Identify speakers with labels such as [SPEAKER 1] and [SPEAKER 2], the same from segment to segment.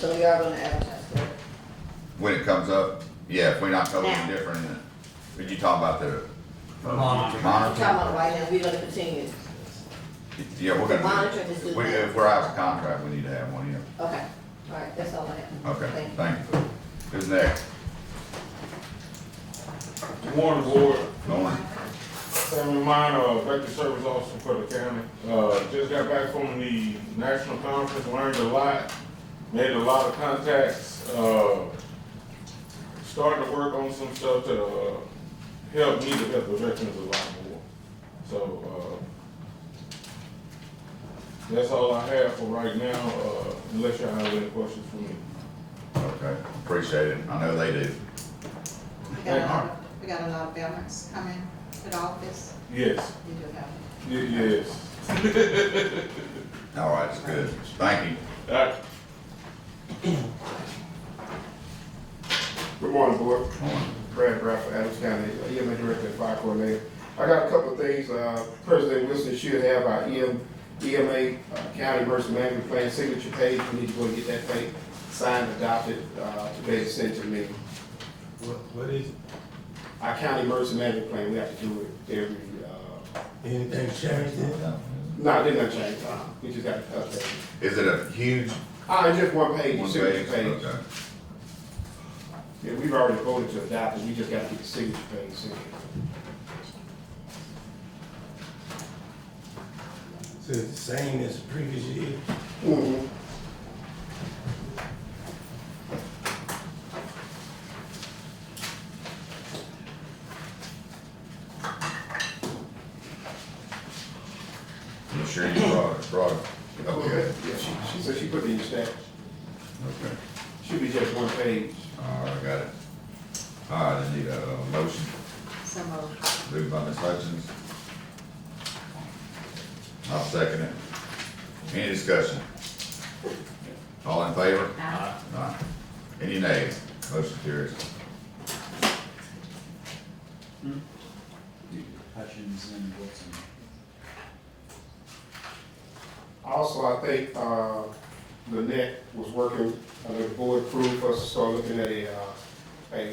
[SPEAKER 1] So we are gonna advertise for it.
[SPEAKER 2] When it comes up, yeah, if we're not totally
[SPEAKER 1] Now.
[SPEAKER 2] different, then, but you talking about the
[SPEAKER 3] Monitor.
[SPEAKER 1] I'm talking about
[SPEAKER 2] monitor?
[SPEAKER 1] right now, we're gonna continue.
[SPEAKER 2] Yeah, we're
[SPEAKER 1] The
[SPEAKER 2] gonna,
[SPEAKER 1] monitor is
[SPEAKER 2] do-
[SPEAKER 1] due
[SPEAKER 2] we,
[SPEAKER 1] now.
[SPEAKER 2] if we're out of contract, we need to have one, yeah.
[SPEAKER 1] Okay, all right, that's all I have.
[SPEAKER 2] Okay,
[SPEAKER 1] Thank you.
[SPEAKER 2] thank you. Who's next?
[SPEAKER 4] Warren Ward,
[SPEAKER 2] Lauren?
[SPEAKER 4] Sam Mine, uh, Veteran Service Officer for the county. Uh, just got back from the national conference, learned a lot, made a lot of contacts, uh, starting to work on some stuff to, uh, help me to help the veterans a lot more. So, uh, that's all I have for right now, uh, unless y'all have any questions for me.
[SPEAKER 2] Okay, appreciate it. I know they do.
[SPEAKER 5] We got a lot, of- we got a lot of veterans coming to the office.
[SPEAKER 4] Yes,
[SPEAKER 5] You do have.
[SPEAKER 4] y- yes.
[SPEAKER 2] All right, it's good. Thank you.
[SPEAKER 4] All right.
[SPEAKER 6] Good morning, board.
[SPEAKER 2] Lauren?
[SPEAKER 6] Brad Bradford, Adams County, uh, EMA Director and Fire Coordinator. I got a couple of things, uh, President Wilson should have our E EM, EMA, uh, County Emergency Management Plan signature page. We need to go and get that page signed, adopted, uh, today and sent to me.
[SPEAKER 3] What, what is, it?
[SPEAKER 6] Our County Emergency Management Plan, we have to do it every, uh,
[SPEAKER 3] anything changed in it?
[SPEAKER 6] no, it didn't change, uh, we just got to update. it.
[SPEAKER 2] Is it a huge
[SPEAKER 6] Uh, it's just one page,
[SPEAKER 2] one
[SPEAKER 6] signature
[SPEAKER 2] page?
[SPEAKER 6] page.
[SPEAKER 2] Okay.
[SPEAKER 6] Yeah, we've already voted to adopt it, we just got to get the signature page signed.
[SPEAKER 3] So it's the same as the previous year?
[SPEAKER 6] Mhm.
[SPEAKER 2] You sure you brought it, brought it? Okay,
[SPEAKER 6] Yeah, she, she said she put it in your stack.
[SPEAKER 2] okay.
[SPEAKER 6] Should be just one page.
[SPEAKER 2] All right, I got it. All right, I need a uh, motion.
[SPEAKER 5] Some of,
[SPEAKER 2] Moved by Ms. Hutchins. I'll second it. Any discussion? All in favor?
[SPEAKER 5] Aye.
[SPEAKER 2] Aye. Any nays? Motion carries.
[SPEAKER 7] Hutchins and Wilson.
[SPEAKER 6] Also, I think, uh, Lynette was working, I know the board approved us to start looking at a, uh, a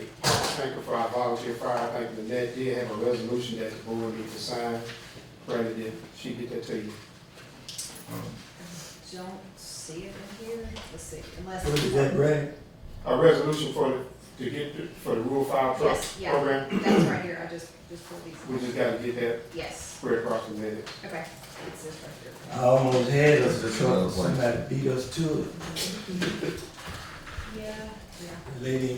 [SPEAKER 6] tanker for our volunteer fire. I think Lynette did have a resolution that the board needs to sign. Brandon, did she get that to you?
[SPEAKER 5] don't see it in here, let's see, unless.
[SPEAKER 3] What is that, Brad?
[SPEAKER 6] A resolution for, the- to get, the- for the rural fire truck
[SPEAKER 5] Yes, yeah.
[SPEAKER 6] program.
[SPEAKER 5] That's right here, I just, just pulled these.
[SPEAKER 6] We just gotta get that
[SPEAKER 5] Yes,
[SPEAKER 6] spread across the minute.
[SPEAKER 5] okay, it's this right here.
[SPEAKER 3] I almost had us,
[SPEAKER 2] This is another
[SPEAKER 3] so
[SPEAKER 2] place.
[SPEAKER 3] somebody beat us to it.
[SPEAKER 5] Yeah. Yeah,
[SPEAKER 3] The lady in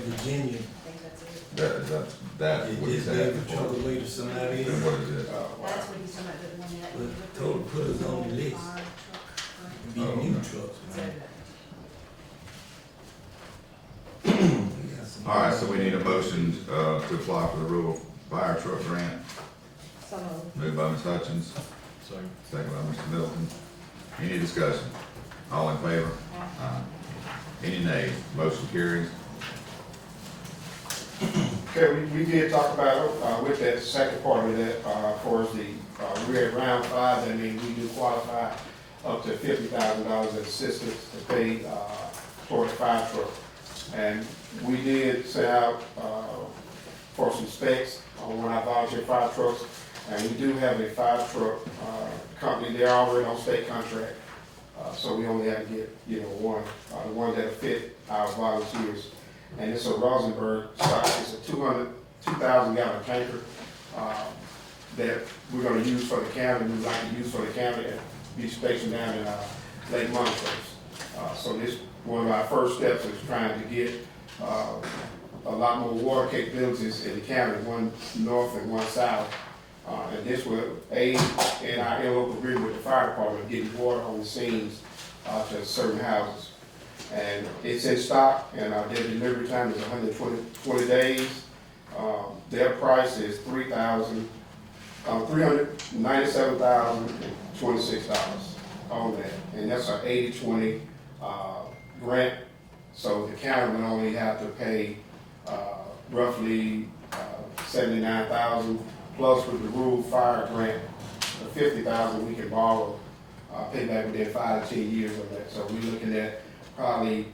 [SPEAKER 5] I
[SPEAKER 3] Virginia,
[SPEAKER 5] think that's it.
[SPEAKER 2] That, that, that,
[SPEAKER 3] they
[SPEAKER 2] what is
[SPEAKER 3] just gave
[SPEAKER 2] that?
[SPEAKER 3] the truck away to somebody
[SPEAKER 2] Then
[SPEAKER 3] else.
[SPEAKER 2] what is it?
[SPEAKER 6] uh,
[SPEAKER 5] That's what he's talking about, the one that.
[SPEAKER 3] But told to put us on the list.
[SPEAKER 5] Fire truck, right?
[SPEAKER 3] Be
[SPEAKER 2] Oh,
[SPEAKER 3] new
[SPEAKER 2] okay.
[SPEAKER 5] It's
[SPEAKER 3] trucks, man.
[SPEAKER 5] over there.
[SPEAKER 3] We got some-
[SPEAKER 2] All right, so we need a motion, uh, to apply for the rural fire truck grant.
[SPEAKER 5] Some of.
[SPEAKER 2] Moved by Ms. Hutchins,
[SPEAKER 7] Sorry.
[SPEAKER 2] second by Mr. Middleton. Any discussion? All in favor? Aye. Any nays? Motion carries.
[SPEAKER 6] Okay, we, we did talk about, uh, with that second part of that, uh, for the, uh, we're at round five, that means we do qualify up to fifty thousand dollars in assistance to pay, uh, for the fire truck. And we did set out, uh, for some specs on one of our volunteer fire trucks, and we do have a fire truck, uh, company, they're already on state contract. Uh, so we only have to get, you know, one, uh, the one that fit our volunteers. And it's a Rosenberg, stock. it's a 200, 2,000 gallon tanker, uh, that we're gonna use for the county, we'd like to use for the county and be stationed down in, uh, Lake Montrose. Uh, so this, one of our first steps is trying to get, uh, a lot more water capabilities in the county, one north and one south. Uh, and this will aid in our interlocal agreement with the fire department, getting water on the scenes, uh, to certain houses. And it's in stock, and our dead delivery time is 120 20 days. Um, Their price is three thousand, um, three hundred ninety-seven thousand twenty-six dollars on that. And that's an 80-20 uh, grant, so the county would only have to pay, uh, roughly, uh, seventy-nine thousand, plus with the rural fire grant, the fifty thousand we can borrow, uh, pay back within five to ten years of that. So we're looking at probably